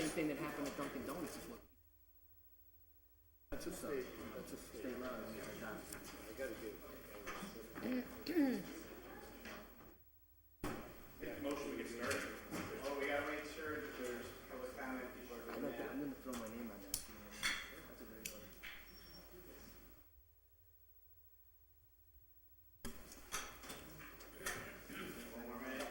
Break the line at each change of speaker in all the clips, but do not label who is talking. open at Dunkin' Donuts is what. That's a state, that's a state law.
Make the motion, we get started.
Well, we gotta make sure that there's public comment before we
I'm
do
gonna,
that.
I'm gonna throw my name on that. if you want. That's a very good.
One more minute.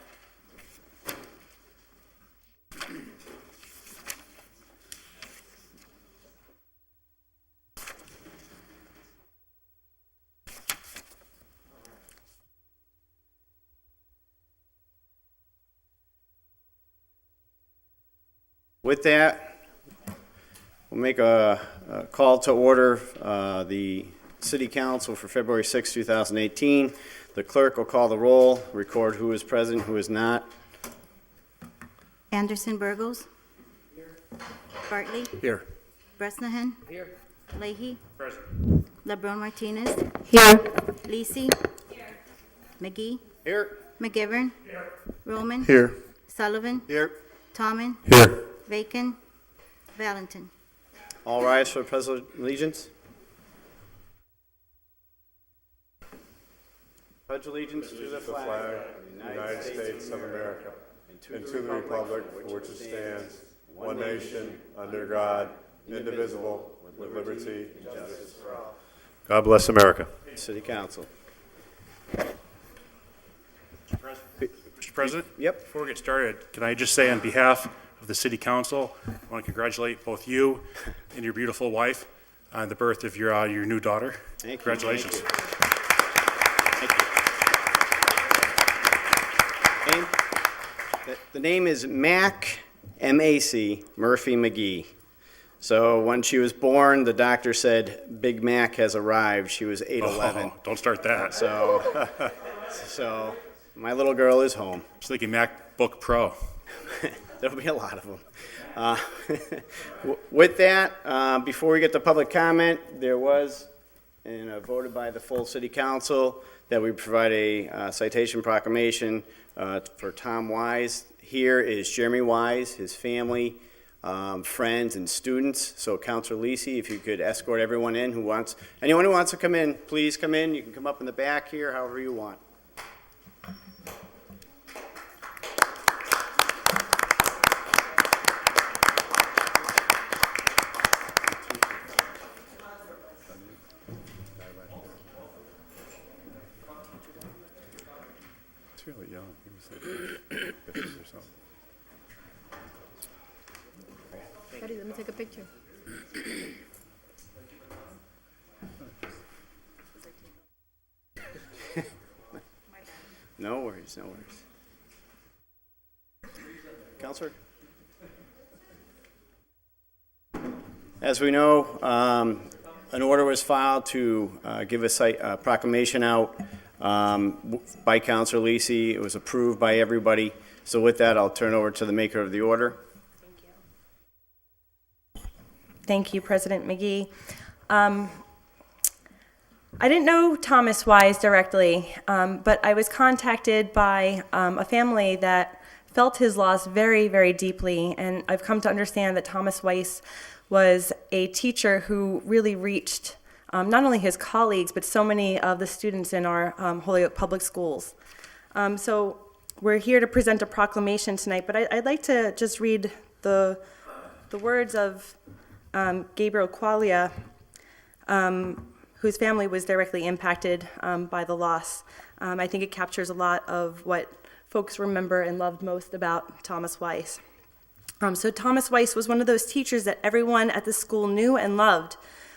With that, we'll make a a call to order uh, the city council for February 6, 2018. The clerk will call the roll, record who is present, who is not.
Anderson Burgos. Bartley.
Here.
Bresnahan. Here. Leahy.
Present.
LeBron Martinez.
Here.
Lisi. McGee.
Here.
McGivern. Roman.
Here.
Sullivan.
Here.
Tomlin.
Here.
Bacon. Valentin.
All rise for the pledge of allegiance. Pledge allegiance to the flag
United States of America, and to the republic for which it stands, one nation, under God, indivisible, with liberty and justice for all. God bless America.
of city council.
Mr. President?
Yep.
Before we get started, can I just say on behalf of the city council, I want to congratulate both you and your beautiful wife on the birth of your, uh, your new daughter.
Thank you.
Congratulations.
Thank Name? The- The name is Mac, M-A-C, Murphy McGee. So when she was born, the doctor said, "Big Mac has arrived." She was 8'11".
Oh, Don't start that. I
So, so my little girl is home.
was thinking MacBook Pro.
There'll be a lot of them. Uh, w- With that, uh, before we get to public comment, there was, and uh, voted by the full city council, that we provide a uh, citation proclamation uh, for Tom Wise. Here is Jeremy Wise, his family, um, friends, and students. So Counselor Lisi, if you could escort everyone in who wants, anyone who wants to come in, please come in. You can come up in the back here, however you want.
He's really young. He was like fifties or something.
Ready, let me take a picture.
No worries, no worries. Counselor? As we know, um, an order was filed to uh, give a site uh, proclamation out um, w- by Counselor Lisi. It was approved by everybody. So with that, I'll turn over to the maker of the order.
Thank you, President McGee. Um, I didn't know Thomas Wise directly, um, but I was contacted by um, a family that felt his loss very, very deeply. And I've come to understand that Thomas Weiss was a teacher who really reached um, not only his colleagues, but so many of the students in our um, Holyoke Public Schools. Um, so we're here to present a proclamation tonight, but I, I'd like to just read the, the words of um, Gabriel Qualia, um, whose family was directly impacted um, by the loss. Um, I think it captures a lot of what folks remember and loved most about Thomas Weiss. Um, so Thomas Weiss was one of those teachers that everyone at the school knew and loved.